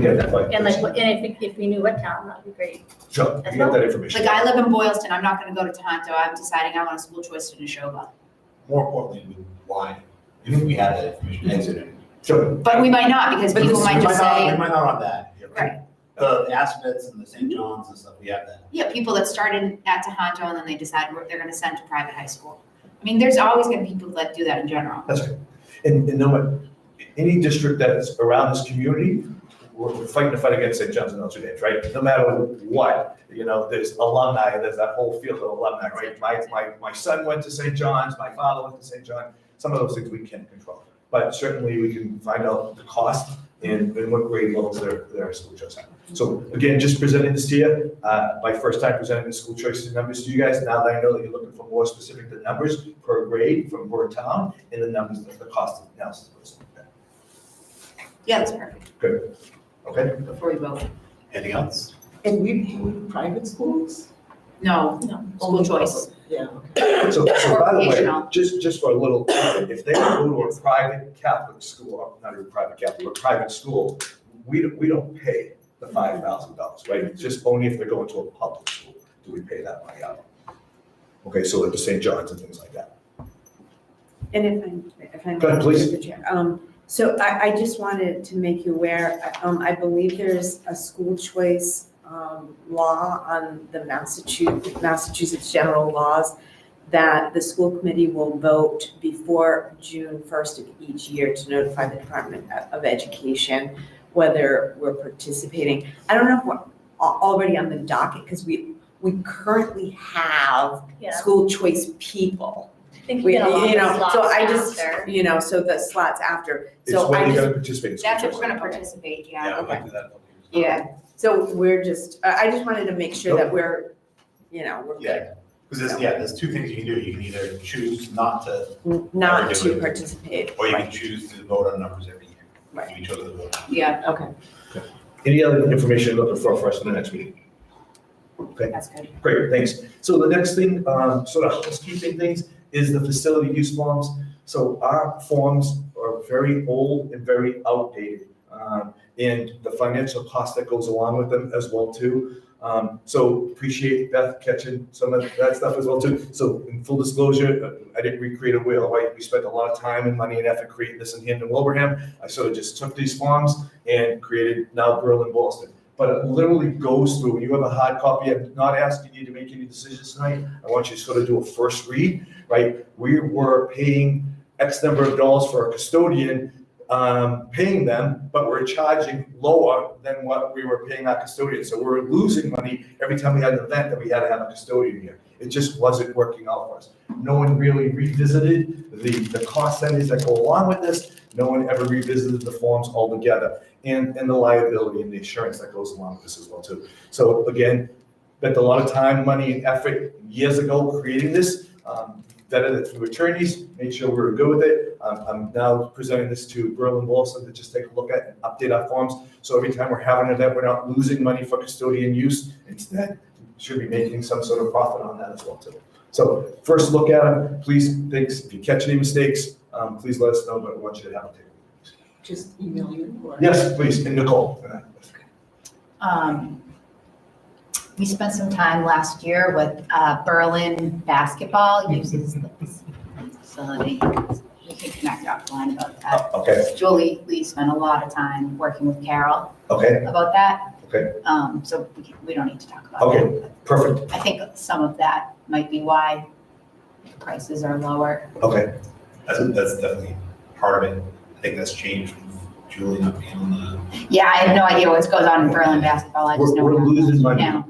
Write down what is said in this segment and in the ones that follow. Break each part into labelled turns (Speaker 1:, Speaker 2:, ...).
Speaker 1: get that by.
Speaker 2: And like, what- and if, we- if we knew what town, that'd be great.
Speaker 1: Sure, you get that information.
Speaker 3: Like I live in Boylston, I'm not gonna go to Tohoto, I'm deciding I want a school choice in Neshoba.
Speaker 1: More importantly, we- why?
Speaker 4: If we had that information exited.
Speaker 1: Sure.
Speaker 3: But we might not, because
Speaker 4: But
Speaker 3: people
Speaker 4: this-
Speaker 3: might
Speaker 4: we
Speaker 3: just
Speaker 4: not- We
Speaker 3: say,
Speaker 4: might not have that. here.
Speaker 3: Right.
Speaker 4: The Aspets and the St. John's and stuff, we have that.
Speaker 3: yeah, people that started at Tohoto and then they decide where they're gonna send to private high school. I mean, there's always gonna be people that do that in general.
Speaker 1: That's right. And, and know what? Any district that is around this community, we're we're fighting the fight against St. John's and Notre Dame, right? No matter what, you know, there's alumni, there's that whole field of alumni, right? My, my, my son went to St. John's, my father went to St. John. Some of those things we can't control. But certainly we can find out the cost and, and what grade levels their, their school choice at. So again, just presenting this to you, uh, my first time presenting the school choice numbers to you guys. Now that I know that you're looking for more specific the numbers per grade from per town, in the numbers, the cost of analysis.
Speaker 3: Yeah, that's perfect,
Speaker 1: Okay?
Speaker 3: before we vote.
Speaker 4: Anything else?
Speaker 5: And we, we private schools?
Speaker 3: No,
Speaker 2: No.
Speaker 3: school choice.
Speaker 5: Yeah.
Speaker 1: So, so by the way,
Speaker 3: Educational.
Speaker 1: just, just for a little, if they go to a private Catholic school, or not even private Catholic, but private school, we, don't- we don't pay the five thousand dollars, right? It's just only if they're going to a public school do we pay that money out. Okay, so like the St. John's and things like that.
Speaker 6: And if I'm, if I'm.
Speaker 1: Go ahead, please.
Speaker 6: Mr. Chair, Um, so I, I just wanted to make you aware, um, I believe there's a school choice, um, law on the Massachusetts, Massachusetts general laws that the school committee will vote before June first of each year to notify the Department of- of Education whether we're participating. I don't know if we're al- already on the docket, because we, we currently have
Speaker 2: Yeah.
Speaker 6: school choice people.
Speaker 2: I think we
Speaker 6: We, you
Speaker 2: get a lot of
Speaker 6: know, so I
Speaker 2: slots
Speaker 6: just,
Speaker 2: after.
Speaker 6: you know, so the slots after,
Speaker 1: It's
Speaker 6: so
Speaker 1: when
Speaker 6: I
Speaker 1: you're
Speaker 6: just,
Speaker 1: gonna participate. in school
Speaker 3: That's if we're
Speaker 1: choice.
Speaker 3: gonna participate, yeah.
Speaker 4: we might
Speaker 6: okay.
Speaker 4: do that.
Speaker 6: yeah, so we're just, I, I just wanted to make sure that we're, you know, we're good.
Speaker 4: Yeah, because there's, yeah, there's two things you can do. You can either choose not to,
Speaker 6: Not
Speaker 4: Alright,
Speaker 6: to
Speaker 4: good.
Speaker 6: participate,
Speaker 4: or you can choose to vote on numbers every year.
Speaker 6: Right.
Speaker 4: You chose to vote.
Speaker 3: Yeah,
Speaker 6: okay.
Speaker 1: Any other information you're looking for for us in the next meeting?
Speaker 3: that's good.
Speaker 1: Great, thanks. So the next thing, um, sort of housekeeping things, is the facility use forms. So our forms are very old and very outdated. Um, and the financial cost that goes along with them as well too. Um, so appreciate Beth catching some of that stuff as well too. So in full disclosure, uh, I didn't recreate a wheel, right? We spent a lot of time and money and effort creating this in Hampton Wilbraham. I sort of just took these forms and created now Berlin Boston but it literally goes through, you have a hard copy, I'm not asking you to make any decisions tonight, I want you to sort of do a first read, right? We were paying X number of dollars for a custodian, um, paying them, but we're charging lower than what we were paying our custodian, so we're losing money every time we had an event that we had to have a custodian here. It just wasn't working out for us. No one really revisited the, the cost centers that go along with this, no one ever revisited the forms altogether and, and the liability and the insurance that goes along with this as well too. So again, spent a lot of time, money, and effort years ago creating this, um, vetted it through attorneys, made sure we were good with it. Um, I'm now presenting this to Berlin Wilson to just take a look at and update our forms. So every time we're having an event, we're not losing money for custodian use. Instead, should be making some sort of profit on that as well too. So first look at them, please, thanks, if you catch any mistakes, um, please let us know, but I want you to have a take.
Speaker 5: Just email you or?
Speaker 1: Yes, please, and Nicole.
Speaker 3: Um, we spent some time last year with, uh, Berlin basketball uses the facility. We can connect offline about that.
Speaker 1: Oh, Okay,
Speaker 3: Julie, we spent a lot of time working with Carol
Speaker 1: okay,
Speaker 3: about that.
Speaker 1: Okay.
Speaker 3: Um, so we can- we don't need to talk about that.
Speaker 1: okay, perfect,
Speaker 3: I think some of that might be why prices are lower.
Speaker 1: okay,
Speaker 4: That's, that's definitely part of it. I think that's changed from Julie not being on the,
Speaker 3: Yeah, I have no idea what goes on in Berlin basketball. I just
Speaker 1: We're-
Speaker 3: know.
Speaker 1: we're
Speaker 3: not
Speaker 1: losing money.
Speaker 3: now.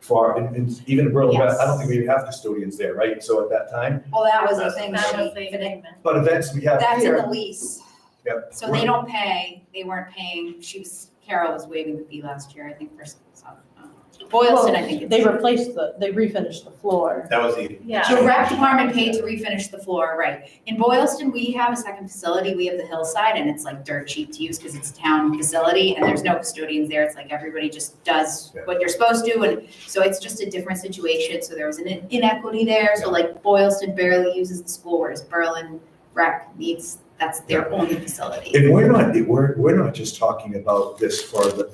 Speaker 1: for, and, and even in Berlin, I don't
Speaker 3: Yes.
Speaker 1: think we have custodians there, right, so at that time,
Speaker 3: Well, that was the
Speaker 4: That's-
Speaker 3: thing.
Speaker 2: That
Speaker 3: she-
Speaker 2: was the agreement.
Speaker 1: but events we have
Speaker 3: That's in
Speaker 1: here.
Speaker 3: the lease.
Speaker 1: Yep.
Speaker 3: So they don't pay, they weren't paying, she was, Carol was waiving the fee last year, I think, for some- um, Boylston, I think. it
Speaker 5: They
Speaker 3: is.
Speaker 5: replaced the, they refinished the floor.
Speaker 4: that was the.
Speaker 2: Yeah.
Speaker 3: The rec department paid to refinish the floor, right. In Boylston, we have a second facility, we have the hillside, and it's like dirt cheap to use because it's a town facility, and there's no custodians there, it's like everybody just does
Speaker 1: Yeah.
Speaker 3: what you're supposed to, and so it's just a different situation, so there was an in- inequity there, so like Boylston barely uses the school, whereas Berlin rec needs, that's their only facility.
Speaker 1: And we're not, we're, we're not just talking about this for the,